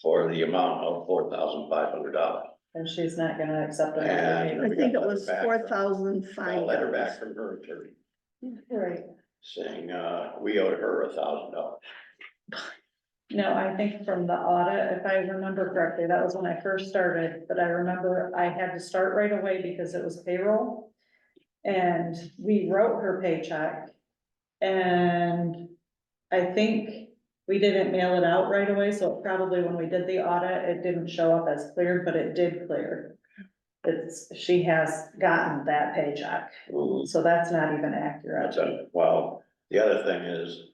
for the amount of four thousand five hundred dollars. and she's not gonna accept And- it. I think it was Back. four thousand Got a five letter dollars. back from her attorney Right, saying, uh, we owed her a thousand dollars. no, I think from the audit, if I remember correctly, that was when I first started, but I remember I had to start right away because it was payroll. And we wrote her paycheck. And I think we didn't mail it out right away, so it probably when we did the audit, it didn't show up as cleared, but it did clear. It's, she has gotten that paycheck, so that's not even accurate. That's a, well, the other thing is,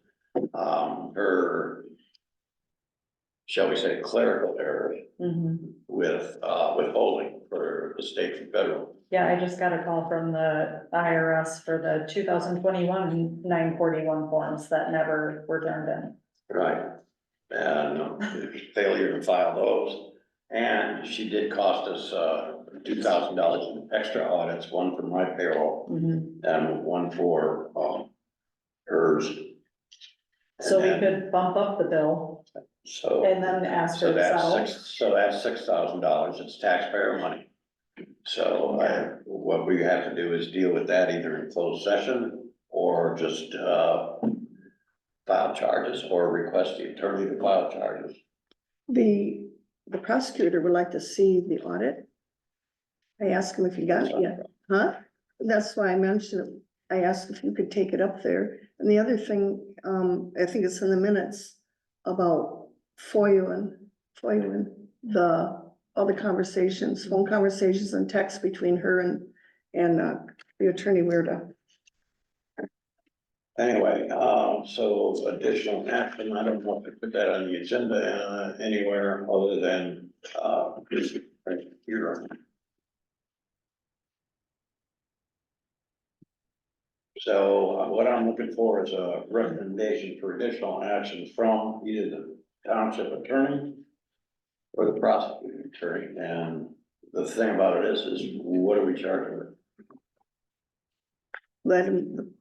um, her, shall we say clerical error Mhm. with, uh, withholding for the state and federal. Yeah, I just got a call from the IRS for the two thousand twenty-one nine forty-one forms that never were turned in. Right. And um, failure to file those. And she did cost us, uh, two thousand dollars in extra audits, one for my payroll and one for, um, hers. So we And then- could bump up the bill So. and then ask So her to that's settle. six, so that's six thousand dollars, it's taxpayer money. So I, what we have to do is deal with that either in closed session or just, uh. File charges or request the attorney to file charges. The, the prosecutor would like to see the audit. I asked him if he got it yet, huh? That's why I mentioned, it. I asked if you could take it up there. And the other thing, um, I think it's in the minutes about FOIAing, FOIAing, the, all the conversations, phone conversations and texts between her and, and, uh, the attorney Weirda. Anyway, uh, so additional action, I don't want to put that on the agenda uh, anywhere other than, uh, you're. So uh, what I'm looking for is a recommendation for additional action from either the township attorney or the prosecuting attorney, and the thing about it is, is what are we charging her? Let him,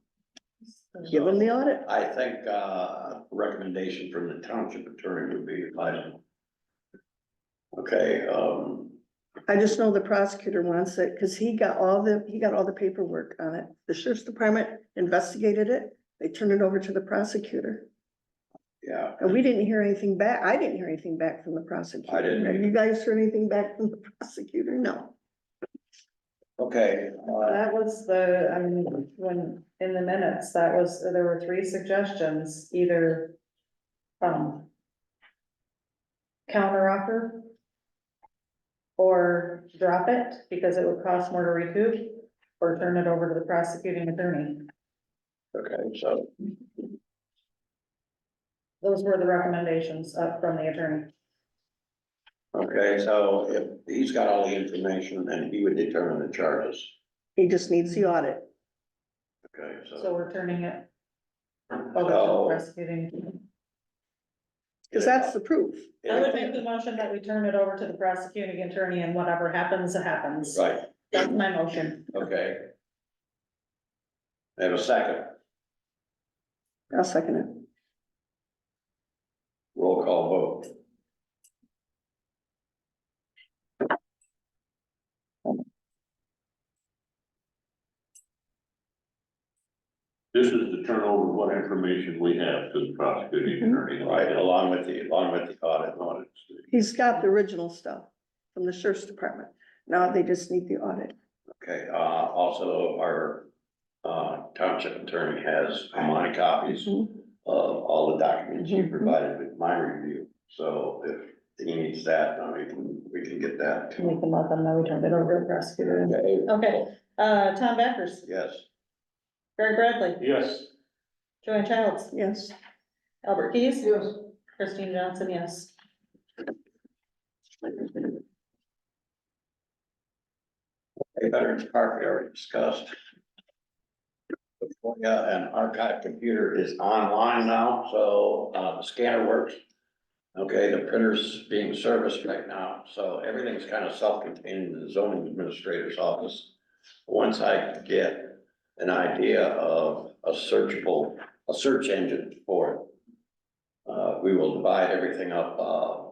give him the audit. I think, uh, recommendation from the township attorney would be advisable. Okay, um, I just know the prosecutor wants it, because he got all the, he got all the paperwork on it. The sheriff's department investigated it, they turned it over to the prosecutor. yeah, And we didn't hear anything back, I didn't hear anything back from the prosecutor. I didn't Have either. You guys heard anything back from the prosecutor? No. okay, uh, That was the, I mean, when, in the minutes, that was, there were three suggestions, either um counter offer or drop it because it would cost more to recoup or turn it over to the prosecuting attorney. okay, so, Those were the recommendations up from the attorney. okay, so if he's got all the information, then he would determine the charges, He just needs the audit. okay, So so. we're turning it over to the So, prosecuting. Because that's the proof. I would yeah, make the motion that we turn it over to the prosecuting attorney and whatever happens, happens. Right, That's my motion. okay. I Have a second, I'll second it. roll call vote, This is to turn over what information we have to the prosecuting attorney. right, along with the, along with the audit and audit. He's got the original stuff from the sheriff's department. Now they just need the audit. Okay, uh, also our, uh, township attorney has my copies of Mhm. all the documents you Mhm. provided with my review. So if he needs that, I mean, we can get that. We can let them know we turned it over to the prosecutor. Okay. Okay, uh, Tom Backers, Yes, Greg Bradley, Yes, Joanne Childs, Yes. Albert Keys. Christine Johnson, yes. a Veterans Park we already discussed. The FOIA and archive computer is online now, so, uh, the scanner works. Okay, the printer's being serviced right now, so everything's kind of self-contained in the zoning administrator's office. Once I get an idea of a searchable, a search engine for it, uh, we will divide everything up, uh,